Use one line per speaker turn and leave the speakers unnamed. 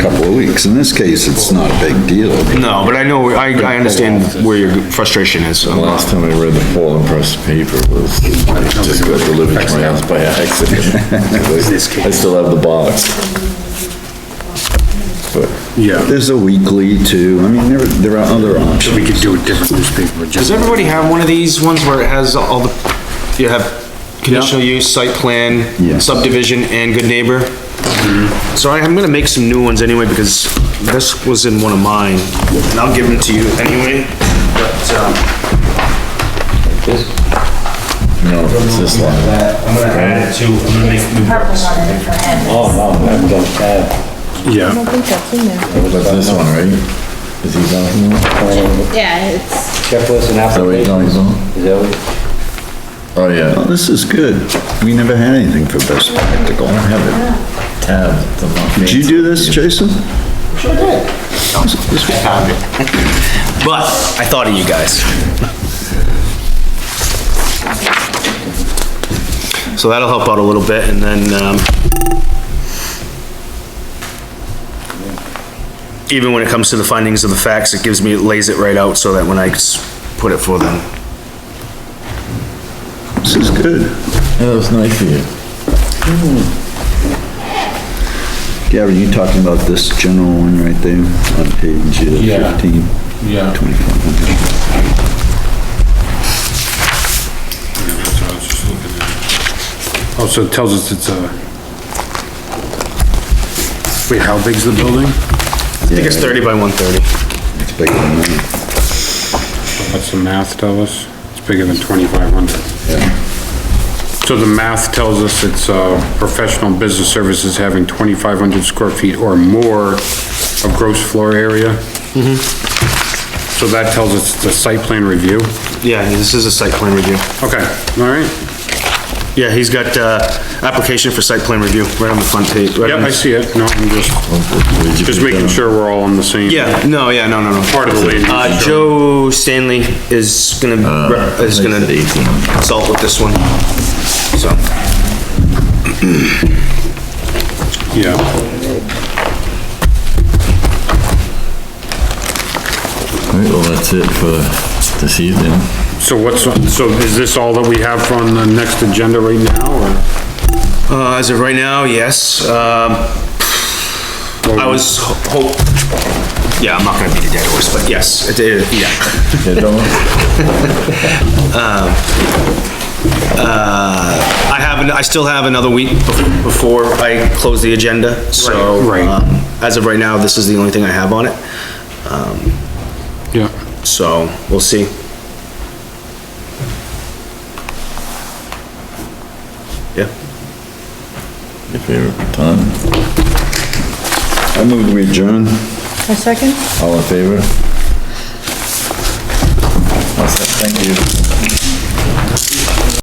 weeks. In this case, it's not a big deal.
No, but I know, I, I understand where your frustration is, so.
Last time I read the Portland Press paper was, I just got delivered to my house by accident. I still have the box. But
Yeah,
There's a weekly too. I mean, there, there are other options.
we could do a different newspaper,
Does
just,
everybody have one of these ones where it has all the, you have conditional use, site
Yeah. Mm-hmm.
plan, subdivision, and good neighbor? So I- I'm gonna make some new ones anyway, because this was in one of mine, and I'll give them to you anyway, but, um,
no, it's this line.
I'm gonna add it to, I'm gonna make new
Purple on a different end.
oh, uh,
yeah,
I think that's in there.
That's this one, right? Is he talking about?
Yeah, it's,
Checklist
Is
and
that what he's talking
application.
about?
Is that what-
Oh, yeah.
Well, this is good. We never had anything for best practical. I don't have
Tab. the mo-
it. Did you do this, Jason?
But I thought of you guys. So that'll help out a little bit and then, um, even when it comes to the findings of the facts, it gives me, it lays it right out so that when I s- put it for them.
This is good.
Yeah, that was Oh, nice of you.
Gavin, you talking about this general one right there on page uh,
Yeah.
fifteen?
yeah.
Twenty-four hundred.
Also Oh, it tells us it's uh, a, wait, how big's the building?
I think it's thirty by one thirty.
It's bigger than mine.
What's the math tell us? It's bigger than twenty-five hundred. So the math tells us it's, uh, professional business services having twenty-five hundred square feet or more of gross floor area. So that tells us it's a site plan review.
Yeah, this is a site plan review.
Okay, all right.
Yeah, he's got, uh, application for site plan review right on the front page. right
Yep,
on
I
the-
see it. No, I'm just, just making sure we're all on the same.
Yeah, no, yeah, no, no, no.
Part of the land use
Uh,
control.
Joe Stanley is gonna,
Uh,
rep- is gonna consult with this one, so.
Yeah,
All right, well, that's it for this evening.
so what's, so is this all that we have on the next agenda right now,
Uh, as of right now, yes, um,
or?
I was ho- hope, yeah, I'm not gonna beat a dead horse, but yes, it is, yeah.
Yeah, don't-
Um, uh, I have, an- I still have another week bef- before I close the agenda, so.
Right, right.
um, As of right now, this is the only thing I have on it,
Yeah,
so we'll see. Yeah.
Your favorite time?
I moved we adjourn.
A second?
All in favor? Awesome, Thank you.